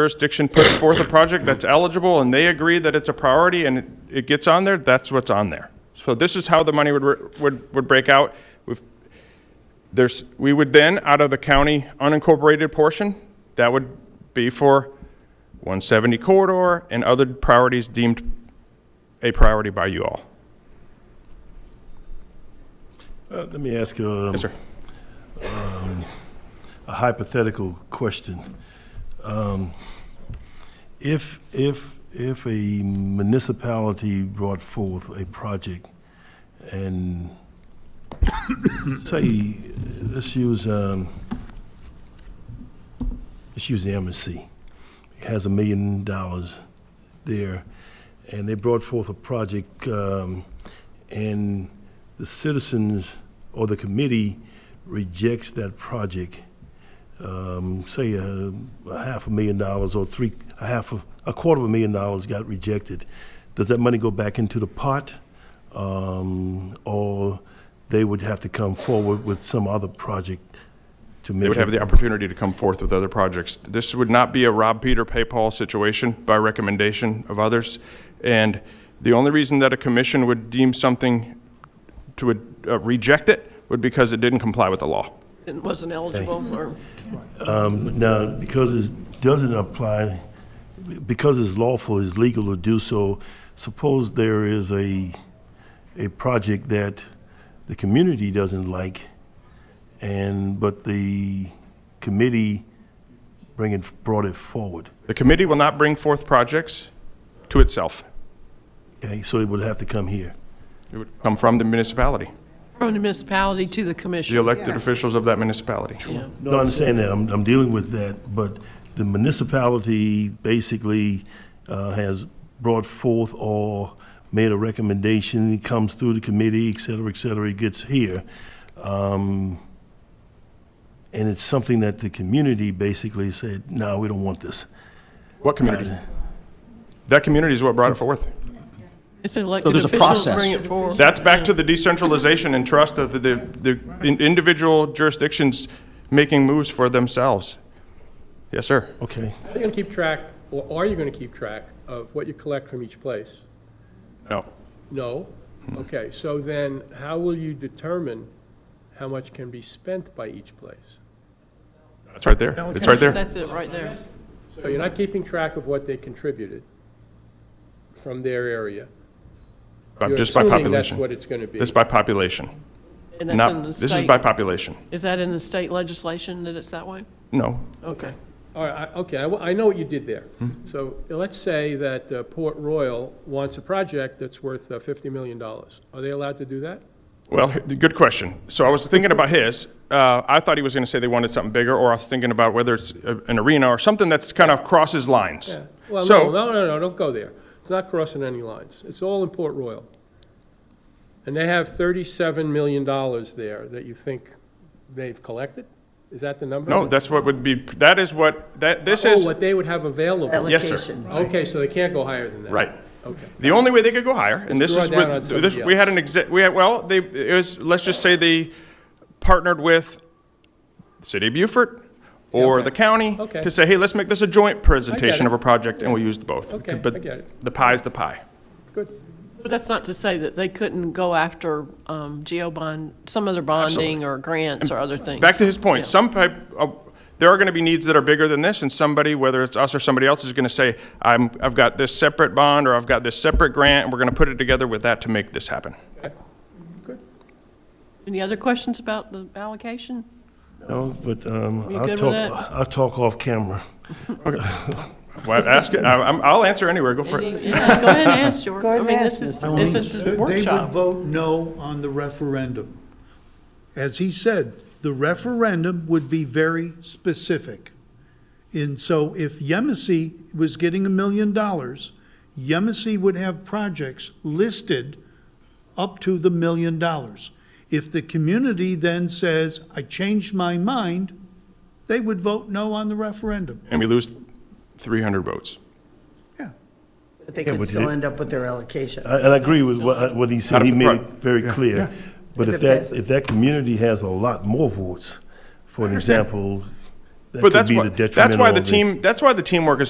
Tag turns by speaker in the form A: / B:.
A: jurisdiction puts forth a project that's eligible and they agree that it's a priority and it- it gets on there, that's what's on there. So this is how the money would, re- would, would break out. We've- There's, we would then, out of the county unincorporated portion, that would be for 170 corridor and other priorities deemed a priority by you all.
B: Uh, Let me ask you um,
A: Yes, sir.
B: a hypothetical question. Um, If, if, if a municipality brought forth a project and say, let's use, um, let's use the MSC. It has a million dollars there, and they brought forth a project, um, and the citizens or the committee rejects that project, um, say a, a half a million dollars or three, a half, a, a quarter of a million dollars got rejected. Does that money go back into the pot? Um, or they would have to come forward with some other project to make
A: They would have
B: up-
A: the opportunity to come forth with other projects. This would not be a Rob Peter, pay Paul situation by recommendation of others. And the only reason that a commission would deem something to uh, reject it would because it didn't comply with the law.
C: It wasn't eligible, or,
B: Um, Now, because it doesn't apply, because it's lawful, it's legal to do so, suppose there is a, a project that the community doesn't like, and, but the committee bring it, brought it forward.
A: The committee will not bring forth projects to itself.
B: Okay, so it would have to come here.
A: It would come from the municipality,
C: from the municipality to the
A: the
C: commission.
A: elected officials of that municipality.
C: Yeah.
B: No, I understand that, I'm, I'm dealing with that, but the municipality basically uh, has brought forth or made a recommendation, it comes through the committee, et cetera, et cetera, it gets here. Um, And it's something that the community basically said, no, we don't want this.
A: What community? That community is what brought it forth.
C: It's an elected
D: there's a
C: officials that
D: process.
C: bring it forward.
A: That's back to the decentralization and trust of the, the in- individual jurisdictions making moves for themselves. Yes, sir.
B: Okay,
E: Are you going to keep track, or are you going to keep track of what you collect from each place?
A: No.
E: No?
A: Mm-hmm.
E: Okay, so then how will you determine how much can be spent by each place?
A: It's right there. It's right there.
C: That's it, right there.
E: So you're not keeping track of what they contributed from their area.
A: By- Just by
E: You're assuming that's
A: population.
E: what it's going to be.
A: This by population.
C: And that's in
A: Not,
C: the
A: this is
C: state.
A: by population.
C: Is that in the state legislation that it's that way?
A: No.
C: Okay.
E: All right, I- okay, I wa- I know what you did there.
A: Hmm?
E: So let's say that uh, Port Royal wants a project that's worth uh, $50 million. Are they allowed to do that?
A: Well, h- good question. So I was thinking about his. Uh, I thought he was going to say they wanted something bigger, or I was thinking about whether it's a- an arena or something that's kind of crosses lines.
E: Yeah, well, no,
A: So,
E: no, no, no, don't go there. It's not crossing any lines. It's all in Port Royal. And they have thirty-seven million dollars there that you think they've collected? Is that the number?
A: no, that's what would be, that is what, that, this
E: Oh,
A: is,
E: what they would have available.
A: yes, sir.
F: Allocation.
E: Okay, so they can't go higher than that?
A: Right.
E: Okay.
A: The only way they could go higher, and this
E: Let's
A: is
E: draw down
A: what,
E: on somebody
A: this, we had an exec, we had, well, they, it was, let's just say they partnered with the city of Beaufort or
E: okay.
A: the county
E: Okay.
A: to say, hey, let's make this a joint presentation of a project, and we'll use the both.
E: Okay, I
A: But
E: get it.
A: the pie's the pie.
E: Good.
C: But that's not to say that they couldn't go after um, geo bond, some other bonding or grants or other things.
A: Back to his
C: Yeah.
A: point, some pipe, uh, there are gonna be needs that are bigger than this, and somebody, whether it's us or somebody else, is gonna say, I'm, I've got this separate bond, or I've got this separate grant, and we're gonna put it together with that to make this happen.
C: Any other questions about the allocation?
B: no, but um,
C: You good
B: I'll
C: with
B: talk,
C: that?
B: I'll talk off camera.
A: Well, ask it, I- I'm, I'll answer anywhere, go for it.
C: Any- Yeah, go ahead and ask, George.
F: Go ahead
C: I mean,
F: and
C: this is,
F: ask, Mr.
C: this is
G: They
C: the
G: would
C: workshop.
G: vote no on the referendum. As he said, the referendum would be very specific. And so if Yemisi was getting a million dollars, Yemisi would have projects listed up to the million dollars. If the community then says, I changed my mind, they would vote no on the referendum.
A: and we lose 300 votes.
G: Yeah.
F: But they
B: Yeah,
F: could
B: but
F: still
B: it-
F: end up with their allocation.
B: I- And I agree with what, what he said,
A: Out of
B: he
A: the
B: made
A: front.
B: it very clear. But
F: If
B: if
F: it
B: that,
F: passes.
B: if that community has a lot more votes, for an example, That
A: But
B: could
A: that's
B: be
A: why,
B: the
A: that's why
B: detrimental
A: the
B: of it.
A: team, that's why the teamwork is so